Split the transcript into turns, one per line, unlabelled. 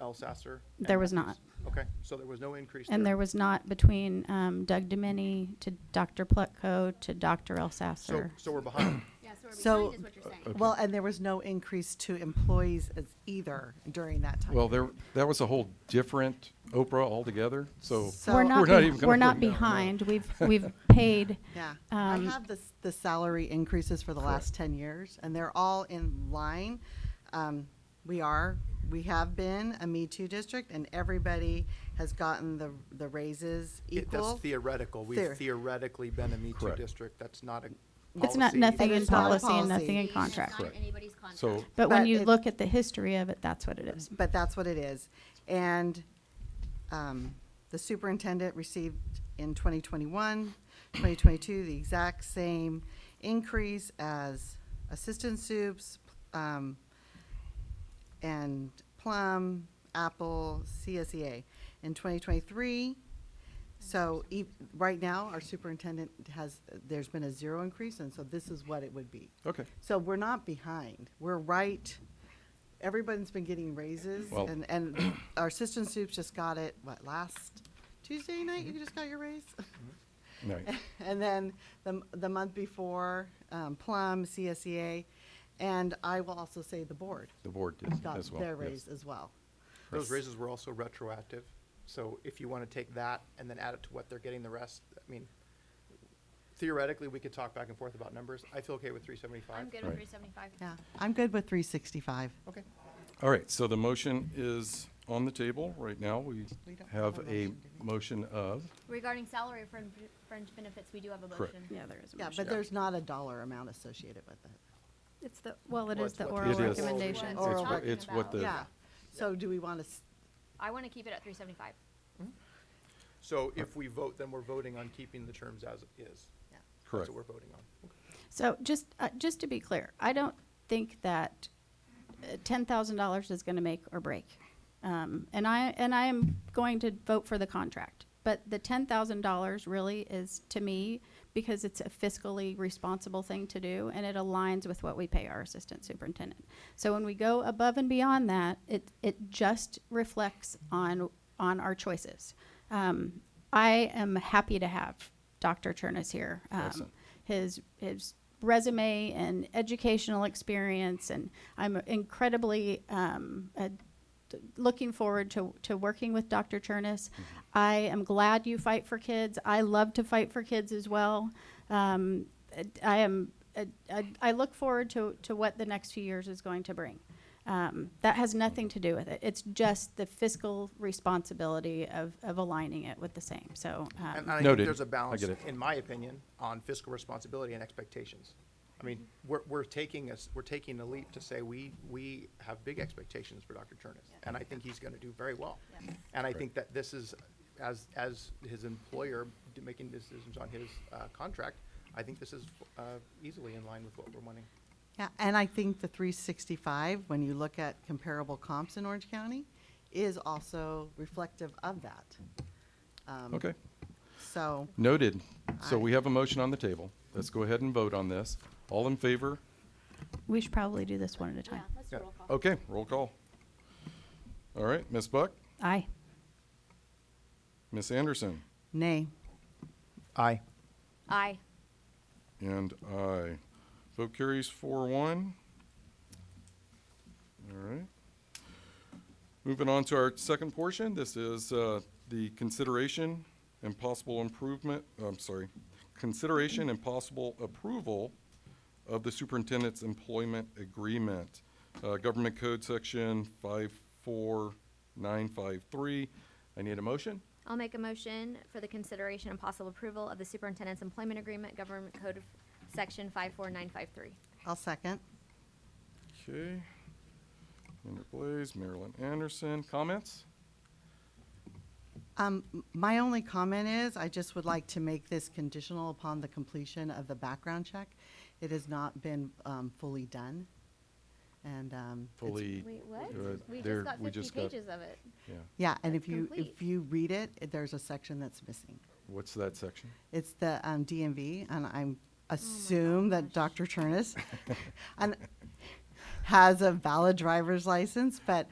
Elsasser? and
There was
Matthews?
not.
Okay, so there was no increase
And there
there?
was not between um, Doug Domini to Dr. Plutko to Dr.
So,
Elsasser.
so we're behind.
Yeah, so
So-
we're behind is what you're saying.
Well, and there was no increase to employees as either during that time.
Well, there, that was a whole different Oprah altogether, so.
So-
We're not,
We're not
beh-
even gonna
we're not
bring that one up.
behind. We've, we've paid.
Yeah, I
um,
have the, s- the salary increases for the last ten years, and they're all in line. Um, we are, we have been a Me Too district, and everybody has gotten the, the raises
It- That's
equal.
theoretical. We've
Theor-
theoretically been a Me Too
Correct.
district. That's not a
It's not,
policy.
nothing
But
in
it's not a
policy and
policy.
nothing in
It's not
contract.
Correct.
anybody's contract.
So-
But when
But
you
it-
look at the history of it, that's what it is.
But that's what it is. And um, the superintendent received in 2021, 2022, the exact same increase as assistant soups um, and Plum, Apple, CSEA. In 2023, so e- right now, our superintendent has, there's been a zero increase, and so this is what it would be.
Okay.
So we're not behind. We're right. Everybody's been getting raises
Well-
and, and our assistant soups just got it, what, last Tuesday night? You just got your raise?
Right.
And then the, m- the month before, um, Plum, CSEA, and I will also say the board
The board did
got
as well.
their
yes.
raise as well.
Those raises were also retroactive. So if you want to take that and then add it to what they're getting the rest, I mean, theoretically, we could talk back and forth about numbers. I feel okay with three seventy-five.
I'm good
Right.
with three seventy-five.
Yeah, I'm good with three sixty-five.
Okay.
All right, so the motion is on the table right now. We
We don't have
have
a
a
motion, do we?
motion of,
Regarding salary for fringe- fringe benefits, we do have a
Correct.
motion.
Yeah, there is. a
Yeah,
motion.
but there's not a dollar amount associated with it.
It's the, well, it
Well,
is
it's
the
what the
oral
It is.
recommendation.
It's
Oral
what-
recommend-
it's what the-
Yeah, so do we want to,
I want to keep it at three seventy-five.
So if we vote, then we're voting on keeping the terms as is. That's
correct.
what we're voting on.
So just, uh, just to be clear, I don't think that uh, $10,000 is going to make or break. Um, And I, and I am going to vote for the contract. But the $10,000 really is, to me, because it's a fiscally responsible thing to do, and it aligns with what we pay our assistant superintendent. So when we go above and beyond that, it, it just reflects on, on our choices. Um, I am happy to have Dr. Chernus here. Um,
Excellent.
his his resume and educational experience and I'm incredibly um, uh, d- looking forward to, to working with Dr. Chernus. I am glad you fight for kids. I love to fight for kids as well. Um, I am I, I- I look forward to, to what the next few years is going to bring. Um, that has nothing to do with it. It's just the fiscal responsibility of, of aligning it with the same. So um,
And and I think
Noted.
there's a
I
balance,
get it.
in my opinion, on fiscal responsibility and expectations. I mean, we're, we're taking us, we're taking a leap to say we, we have big expectations for Dr. Chernus. And I think he's gonna do very well.
Yeah.
And I think that this is, as, as his employer d- making decisions on his, uh, contract, I think this is, uh, easily in line with what we're wanting.
Yeah, and I think the three sixty-five, when you look at comparable comps in Orange County, is also reflective of that. Um,
Okay,
So,
noted. So
Aye.
we have a motion on the table. Let's go ahead and vote on this. All in favor?
we should probably do this one at a time.
let's
Yeah.
roll call.
Okay, roll call. All right, Ms. Buck,
Aye.
Ms. Anderson,
nay.
Aye.
Aye.
and I. Vote carries four one. All right. Moving on to our second portion, this is uh, the consideration and possible improvement, I'm sorry, consideration and possible approval of the superintendent's employment agreement. Uh, Government Code Section 54953. I need a motion?
I'll make a motion for the consideration and possible approval of the superintendent's employment agreement, government code of section five-four-nine-five-three.
I'll second.
Okay. Andrew Blaze, Marilyn Anderson, comments?
Um, m- my only comment is, I just would like to make this conditional upon the completion of the background check. It has not been, um, fully done, and, um. it's-
Fully.
Wait, what?
uh,
We
there-
just got
we
fifty
just got-
pages of it.
Yeah,
Yeah, and
It's
if you,
complete.
if you read it, it- there's a section that's missing.
what's that section?
It's the um, DMV, and I'm assume that Dr. Chernus and has a valid driver's license, but